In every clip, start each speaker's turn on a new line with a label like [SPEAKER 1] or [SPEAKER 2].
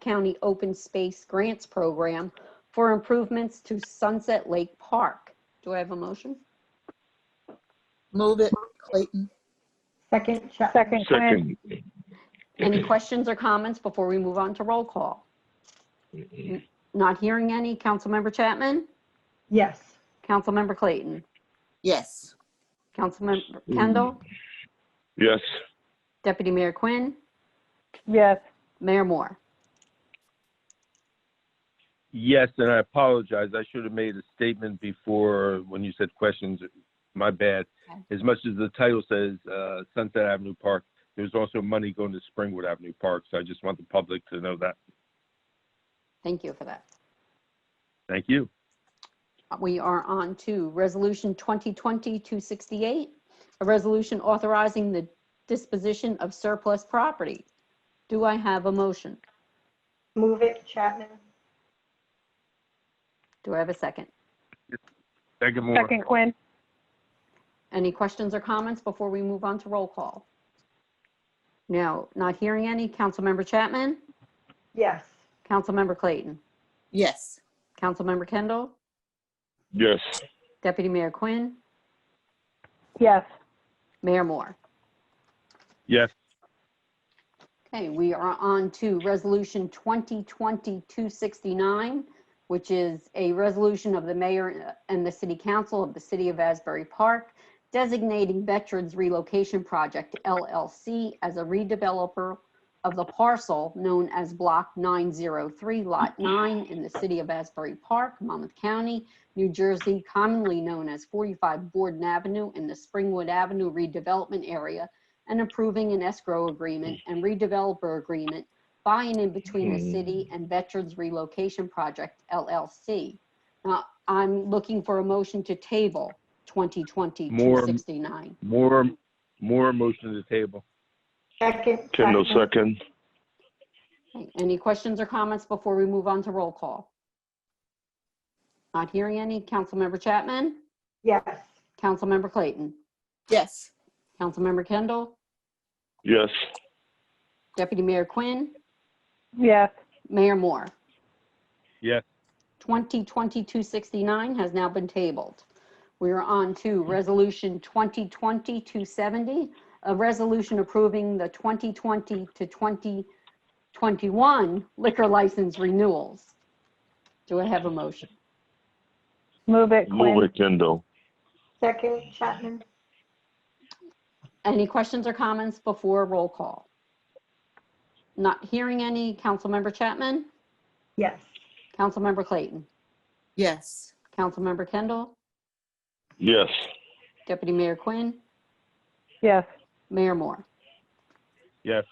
[SPEAKER 1] County Open Space Grants Program for improvements to Sunset Lake Park. Do I have a motion?
[SPEAKER 2] Move it, Clayton.
[SPEAKER 3] Second, Chapman.
[SPEAKER 4] Second Clan,
[SPEAKER 5] Second.
[SPEAKER 1] Any questions or comments before we move on to roll call? Not hearing any. Councilmember Chapman?
[SPEAKER 3] Yes.
[SPEAKER 1] Councilmember Clayton?
[SPEAKER 2] Yes.
[SPEAKER 1] Councilmember Kendall?
[SPEAKER 5] Yes,
[SPEAKER 1] Deputy Mayor Quinn?
[SPEAKER 4] yes,
[SPEAKER 1] Mayor Moore?
[SPEAKER 6] Yes, and I apologize. I should have made a statement before when you said questions. My bad.
[SPEAKER 1] Okay.
[SPEAKER 6] As much as the title says uh, Sunset Avenue Park, there's also money going to Springwood Avenue Park. So I just want the public to know that.
[SPEAKER 1] Thank you for that.
[SPEAKER 6] Thank you.
[SPEAKER 1] We are on to Resolution 2020-268, a resolution authorizing the disposition of surplus property. Do I have a motion?
[SPEAKER 3] Move it, Chapman.
[SPEAKER 1] Do I have a second?
[SPEAKER 6] Second more.
[SPEAKER 4] second Quinn,
[SPEAKER 1] Any questions or comments before we move on to roll call? No, not hearing any. Councilmember Chapman?
[SPEAKER 3] Yes.
[SPEAKER 1] Councilmember Clayton?
[SPEAKER 2] Yes.
[SPEAKER 1] Councilmember Kendall?
[SPEAKER 5] yes,
[SPEAKER 1] Deputy Mayor Quinn?
[SPEAKER 4] yes,
[SPEAKER 1] Mayor Moore?
[SPEAKER 6] Yes,
[SPEAKER 1] Okay, we are on to Resolution 2020-269, which is a resolution of the mayor and the city council of the city of Asbury Park designating Veterans Relocation Project LLC as a redeveloper of the parcel known as Block 903, Lot 9 in the city of Asbury Park, Monmouth County, New Jersey, commonly known as 45 Borden Avenue in the Springwood Avenue redevelopment area and approving an escrow agreement and redeveloper agreement by and in between the city and Veterans Relocation Project LLC. Now, I'm looking for a motion to table 2020-269.
[SPEAKER 6] more, more motion to the table.
[SPEAKER 3] Second.
[SPEAKER 5] Kendall
[SPEAKER 3] Chapman.
[SPEAKER 5] second.
[SPEAKER 1] Okay, Any questions or comments before we move on to roll call? Not hearing any. Councilmember Chapman?
[SPEAKER 3] Yes.
[SPEAKER 1] Councilmember Clayton?
[SPEAKER 2] Yes.
[SPEAKER 1] Councilmember Kendall?
[SPEAKER 5] Yes,
[SPEAKER 1] Deputy Mayor Quinn?
[SPEAKER 4] yes,
[SPEAKER 1] Mayor Moore?
[SPEAKER 6] Yes.
[SPEAKER 1] 2020-269 has now been tabled. We are on to Resolution 2020-270, a resolution approving the 2020 to 2021 liquor license renewals. Do I have a motion?
[SPEAKER 4] move it
[SPEAKER 5] move
[SPEAKER 4] Quinn,
[SPEAKER 5] it Kendall.
[SPEAKER 3] Second, Chapman.
[SPEAKER 1] Any questions or comments before roll call? Not hearing any. Councilmember Chapman?
[SPEAKER 3] Yes.
[SPEAKER 1] Councilmember Clayton?
[SPEAKER 2] Yes.
[SPEAKER 1] Councilmember Kendall?
[SPEAKER 5] Yes,
[SPEAKER 1] Deputy Mayor Quinn?
[SPEAKER 4] yes,
[SPEAKER 1] Mayor Moore?
[SPEAKER 6] Yes.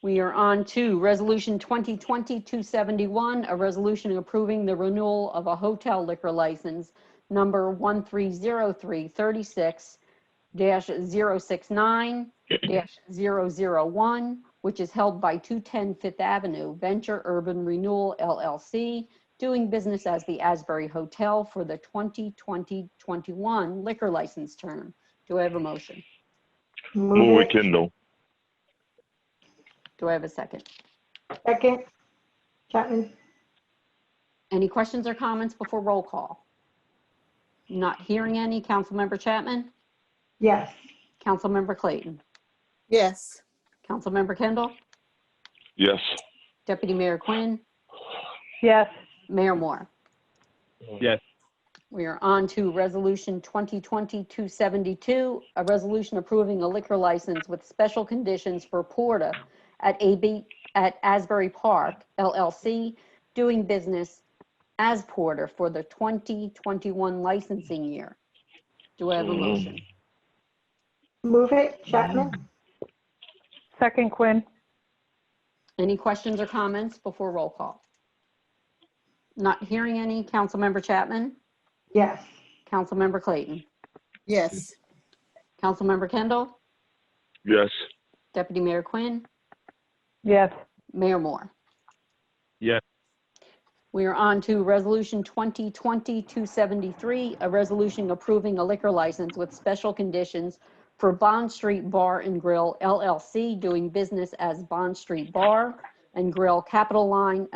[SPEAKER 1] We are on to Resolution 2020-271, a resolution approving the renewal of a hotel liquor license number 130336-069-001, which is held by 210 Fifth Avenue Venture Urban Renewal LLC, doing business as the Asbury Hotel for the 2020-21 liquor license term. Do I have a motion?
[SPEAKER 5] move it Kendall.
[SPEAKER 1] Do I have a second?
[SPEAKER 3] Second, Chapman.
[SPEAKER 1] Any questions or comments before roll call? Not hearing any. Councilmember Chapman?
[SPEAKER 3] Yes.
[SPEAKER 1] Councilmember Clayton?
[SPEAKER 2] Yes.
[SPEAKER 1] Councilmember Kendall?
[SPEAKER 5] Yes,
[SPEAKER 1] Deputy Mayor Quinn?
[SPEAKER 4] yes,
[SPEAKER 1] Mayor Moore?
[SPEAKER 6] Yes.
[SPEAKER 1] We are on to Resolution 2020-272, a resolution approving a liquor license with special conditions for Porta at AB, at Asbury Park LLC, doing business as Porter for the 2021 licensing year. Do I have a motion?
[SPEAKER 3] Move it, Chapman.
[SPEAKER 4] second Quinn,
[SPEAKER 1] Any questions or comments before roll call? Not hearing any. Councilmember Chapman?
[SPEAKER 3] Yes.
[SPEAKER 1] Councilmember Clayton?
[SPEAKER 2] Yes.
[SPEAKER 1] Councilmember Kendall?
[SPEAKER 5] yes,
[SPEAKER 1] Deputy Mayor Quinn?
[SPEAKER 4] yes,
[SPEAKER 1] Mayor Moore?
[SPEAKER 6] Yes.
[SPEAKER 1] We are on to Resolution 2020-273, a resolution approving a liquor license with special conditions for Bond Street Bar and Grill LLC, doing business as Bond Street Bar, and Grill Capital Line